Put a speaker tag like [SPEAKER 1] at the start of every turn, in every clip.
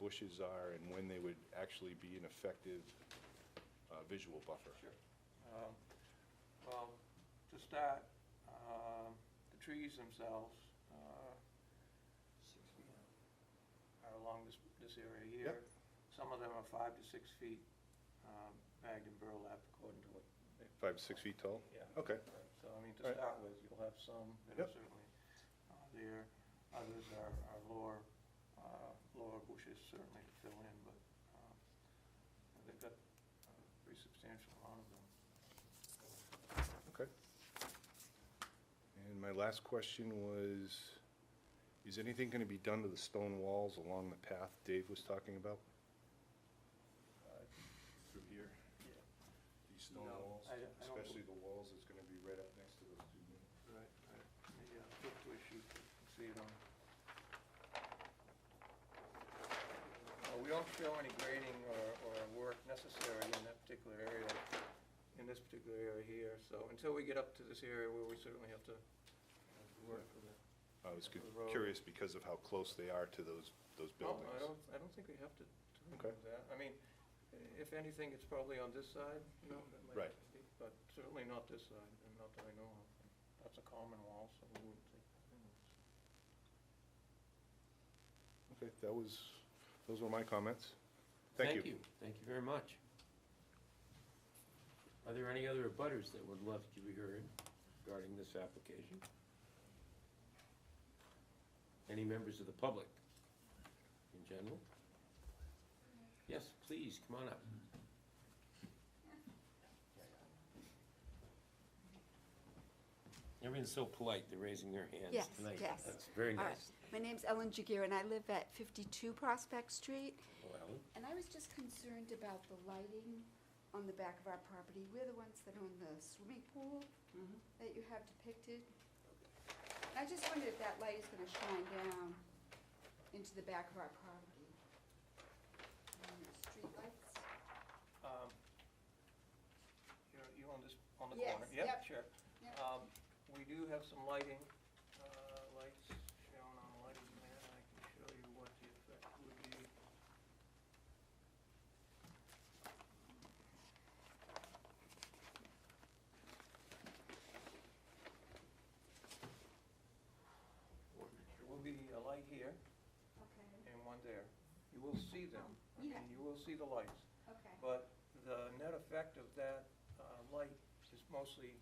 [SPEAKER 1] bushes are and when they would actually be an effective uh, visual buffer?
[SPEAKER 2] Sure. Um, Well, to start, um, the trees themselves uh, are along this, this area here.
[SPEAKER 1] Yep.
[SPEAKER 2] Some of them are five to six feet um, bagged in burlap according to what. they-
[SPEAKER 1] Five, six feet tall?
[SPEAKER 2] Yeah.
[SPEAKER 1] Okay.
[SPEAKER 2] So, I mean, to
[SPEAKER 1] Right.
[SPEAKER 2] start with, you'll have some that are
[SPEAKER 1] Yep.
[SPEAKER 2] certainly uh, there. Others are are lower, uh, lower bushes certainly to fill in, but um, they've got a pretty substantial amount of them.
[SPEAKER 1] Okay. And my last question was, is anything going to be done to the stone walls along the path Dave was talking about? Through here, these stone
[SPEAKER 2] No,
[SPEAKER 1] walls,
[SPEAKER 2] I don't- I don't-
[SPEAKER 1] especially the walls that's going to be right up next to those two units?
[SPEAKER 2] Right, right. Yeah, flip to a sheet, see it on. Uh, We don't show any grading or, or work necessary in that particular area, in this particular area here. So until we get up to this area where we certainly have to uh, work for the.
[SPEAKER 1] I was
[SPEAKER 2] The road.
[SPEAKER 1] curious because of how close they are to those, those buildings.
[SPEAKER 2] No, I don't, I don't think we have to do
[SPEAKER 1] Okay.
[SPEAKER 2] that. I mean, if anything, it's probably on this side, you know, that might
[SPEAKER 1] Right.
[SPEAKER 2] be, but certainly not this side, and not that I know of. That's a common wall, so we wouldn't take that in.
[SPEAKER 1] Okay, that was, those were my comments. Thank you.
[SPEAKER 3] Thank you very much. Are there any other abutters that would love to be heard regarding this application? Any members of the public in general? Yes, please, come on up. Everyone's so polite, they're raising their hands
[SPEAKER 4] Yes,
[SPEAKER 3] tonight.
[SPEAKER 4] yes.
[SPEAKER 3] That's very
[SPEAKER 4] All right.
[SPEAKER 3] nice.
[SPEAKER 4] My name's Ellen Jagir, and I live at 52 Prospect Street.
[SPEAKER 3] Well,
[SPEAKER 4] And I was just concerned about the lighting on the back of our property. We're the ones that own the swimming pool
[SPEAKER 2] Mm-hmm.
[SPEAKER 4] that you have depicted. And I just wondered if that light is going to shine down into the back of our property. Um, Street lights?
[SPEAKER 2] Um, You're, you on this, on the
[SPEAKER 4] Yes,
[SPEAKER 2] corner?
[SPEAKER 4] yep.
[SPEAKER 2] Sure.
[SPEAKER 4] Yep.
[SPEAKER 2] Um, We do have some lighting, uh, lights shown on lighting plan. I can show you what the effect would be. There will be a light here
[SPEAKER 4] Okay,
[SPEAKER 2] and one there. You will see them. I mean,
[SPEAKER 4] Yeah.
[SPEAKER 2] You will see the lights.
[SPEAKER 4] okay.
[SPEAKER 2] But the net effect of that uh, light is mostly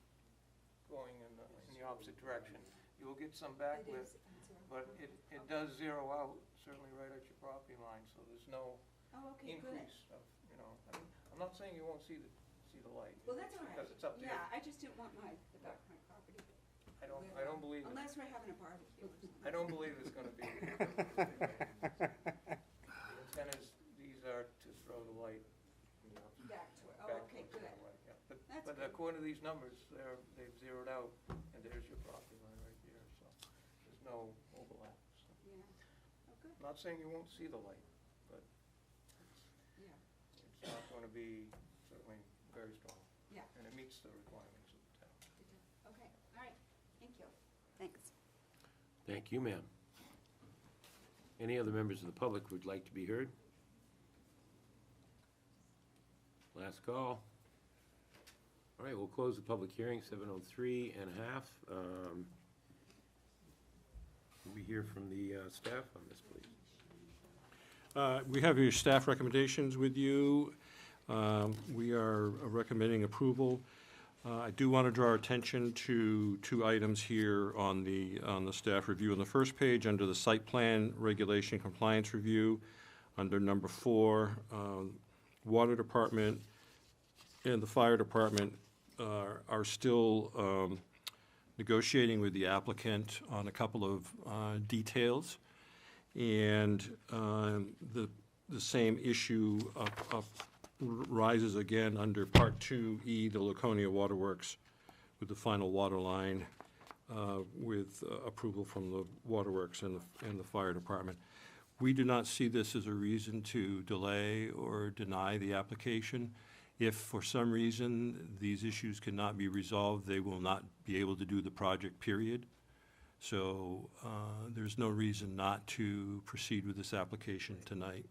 [SPEAKER 2] going in the, in the opposite direction. You will get some
[SPEAKER 4] It
[SPEAKER 2] backlit,
[SPEAKER 4] is- it's all right.
[SPEAKER 2] but it, it does zero out certainly right at your property line, so there's no
[SPEAKER 4] Oh, okay, good.
[SPEAKER 2] increase of, you know, I mean, I'm not saying you won't see the, see the light.
[SPEAKER 4] Well, that's all right.
[SPEAKER 2] Because it's up to you.
[SPEAKER 4] Yeah, I just didn't want my, the back of my property.
[SPEAKER 2] I don't, I don't believe, it-
[SPEAKER 4] Unless we're having a barbecue or something.
[SPEAKER 2] I don't believe it's gonna be. The intent is, these are to throw the light in the opposite
[SPEAKER 4] Back to it, oh,
[SPEAKER 2] back
[SPEAKER 4] okay,
[SPEAKER 2] towards
[SPEAKER 4] good.
[SPEAKER 2] that way, yeah. But-
[SPEAKER 4] That's
[SPEAKER 2] But
[SPEAKER 4] good.
[SPEAKER 2] according to these numbers, they're, they've zeroed out, and there's your property line right there, so there's no overlap. so.
[SPEAKER 4] Yeah, oh, good,
[SPEAKER 2] I'm Not saying you won't see the light, but
[SPEAKER 4] yeah,
[SPEAKER 2] it's not gonna be certainly very strong,
[SPEAKER 4] yeah,
[SPEAKER 2] and it meets the requirements of the town.
[SPEAKER 4] good job. okay, all right, thank you. Thanks.
[SPEAKER 3] Thank you, ma'am. Any other members of the public who'd like to be heard? Last call. All right, we'll close the public hearing, 7:03 and a half. Um, Can we hear from the uh, staff on this, please?
[SPEAKER 5] Uh, We have your staff recommendations with you. Um, We are recommending approval. Uh, I do want to draw our attention to two items here on the, on the staff review. On the first page, under the site plan regulation compliance review, under number four, um, water department and the fire department uh, are still um, negotiating with the applicant on a couple of uh, details. And um, the, the same issue up, up rises again under Part 2E, the Laconia Waterworks, with the final water line, uh, with uh, approval from the waterworks and the, and the fire department. We do not see this as a reason to delay or deny the application. If for some reason these issues cannot be resolved, they will not be able to do the project, period. So uh, there's no reason not to proceed with this application tonight.